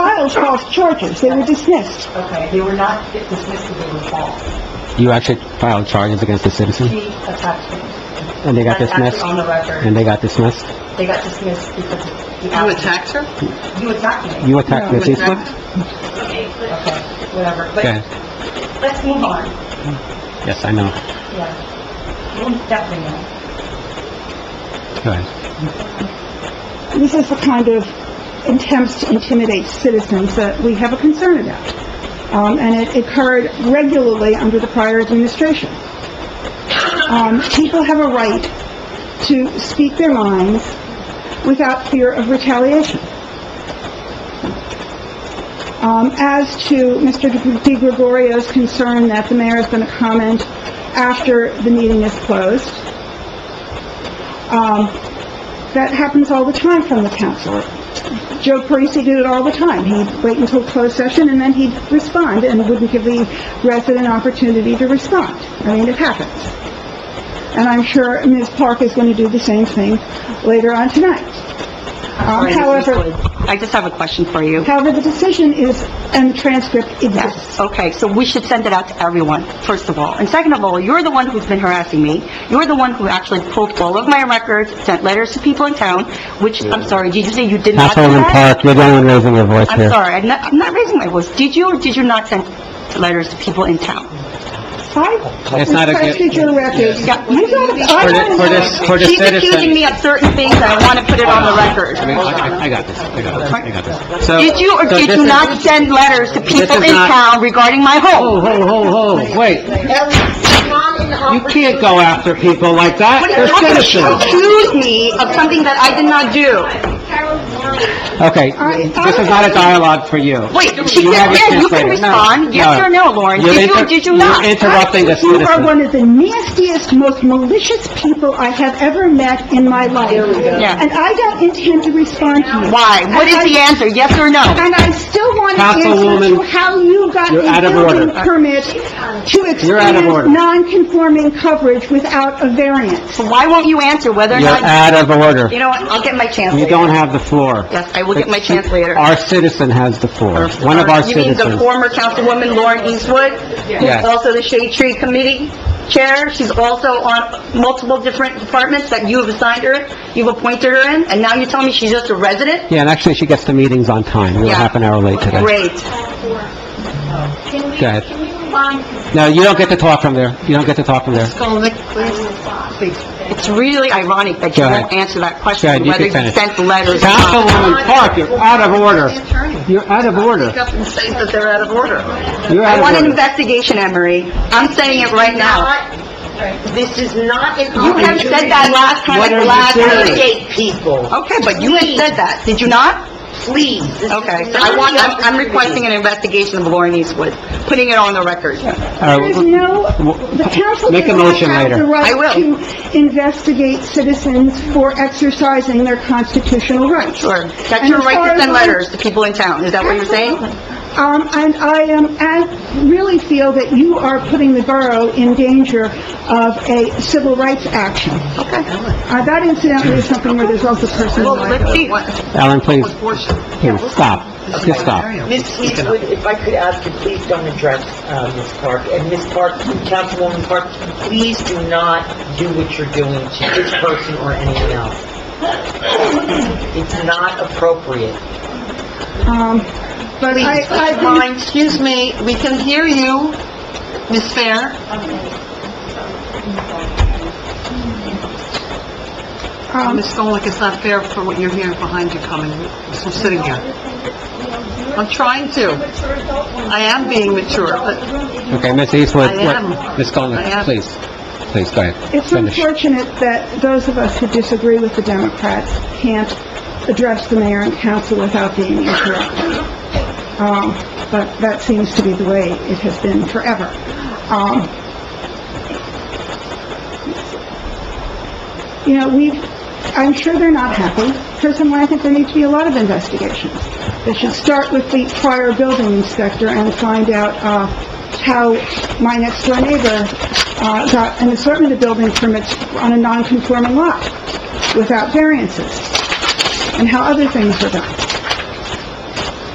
those false charges, they were dismissed. Okay, they were not dismissed as being false. You actually filed charges against a citizen, She attacked them. and Hmm. they got That's actually dismissed, on the record. and they got dismissed? They got dismissed because of the... You attacked her? You attacked me. You attacked You Ms. Eastwood? attacked her? Okay, whatever. Go But ahead. let's move on. Yes, I know. Yeah. We'll definitely know. Go ahead. This is the kind of attempts to intimidate citizens that we have a concern about. Um, and it occurred regularly under the prior administration. Um, people have a right to speak their minds without fear of retaliation. Um, as to Mr. De Gregorio's concern that the mayor is going to comment after the meeting is closed, um, that happens all the time from the council. Joe Parisi did it all the time. He'd wait until closed session, and then he'd respond, and wouldn't give the resident opportunity to respond. I mean, it happens. And I'm sure Ms. Park is going to do the same thing later on tonight. Um, However, I just have a question for you. however, the decision is, and the transcript exists. Okay, so we should send it out to everyone, first of all. And second of all, you're the one who's been harassing me. You're the one who actually pulled all of my records, sent letters to people in town, which, I'm sorry, did you say you did not do Councilwoman that? Park, you're the one raising your voice I'm here. sorry, I'm not, I'm not raising my voice. Did you or did you not send letters to people in town? I It's not a- requested your records. You got- you don't- For I the- for don't- this, for the She's citizen... accusing me of certain things, and I want to put it on the record. I mean, I- I- I got this, I got this, I got this. So- Did you or so did this you is- not send letters to people is in not- town regarding my home? Oh, Ho, ho, ho, ho, wait. You can't go after people like that, What are you they're talking about? citizens. Accuse me of something that I did not do. Okay, this is not a dialogue for you. Wait, she You have said, your yeah, you chance can later. No, respond, yes or no, Lauren, You're did you or inter- did you not? You're interrupting the You are citizen. one of the nastiest, most malicious people I have ever met in my life. Yeah. And I don't intend to respond to you. Why? What is the answer, yes or no? And I still want to answer to Councilwoman, how you got you're out a of building order. permit to You're out of order. expand non-conforming coverage without a variance. So why won't you answer whether or You're not, out of order. you know what, I'll get my chance You later. don't have the floor. Oh, Yes, I will get my chance later. Our citizen has the floor, one of our You mean the citizens. former Councilwoman Lauren Eastwood? Yes. Who's also the Shade Tree Committee Chair. She's also on multiple different departments that you have assigned her, you've appointed her in, and now you tell me she's just a resident? Yeah, and actually, she gets the meetings on time. We were Yeah. half an hour late today. Great. Can we, Go ahead. can we move on? 'Cause No, you don't get to talk from there. You don't get to talk from there. It's really ironic that you Go ahead. won't answer that Go ahead, question, you whether can you finish. sent letters or not. Councilwoman Park, you're out of order. You're out of order. Up and say that they're out of order. You're I want an out of order. investigation, Emery. I'm saying it right now. This is not an You have said that last time, at the last meeting. people, Okay, but you had said that, did you not? please. Okay, so I want, I'm I'm requesting an investigation of Lauren Eastwood, putting it on the record. All There is right, no, the council Make a does not motion have the later. I will. right to investigate citizens for exercising their constitutional rights. Sure. That's And your as far right to as send I'm- letters to people in town, is that what you're saying? Um, and I am, I really feel that you are putting the borough in danger of a civil rights action. Okay. Uh, that incidentally is something where there's also personal Well, let's liability. see. Ellen, please, please, stop. Just stop. Ms. Eastwood, if I could ask you, please don't address uh, Ms. Park. And Ms. Park, Councilwoman Park, please do not do what you're doing to this person or anyone else. It's not appropriate. Um, but Please, I, I've been- Mine, excuse me, we can hear you, Ms. Fair. um, Ms. Golick, it's not fair for what you're hearing behind you coming, from sitting here. I'm trying to. I am being mature, but Okay, Ms. Eastwood, I am. what, Ms. I Golick, am. please, please, go ahead. It's Finish. unfortunate that those of us who disagree with the Democrats can't address the mayor and council without being interrupted. Um, But that seems to be the way it has been forever. Um, You know, we, I'm sure they're not happy. Personally, I think there need to be a lot of investigations. They should start with the prior building inspector and find out uh, how my next-door neighbor uh, got an assortment of building permits on a non-conforming lot without variances, and how other things were done.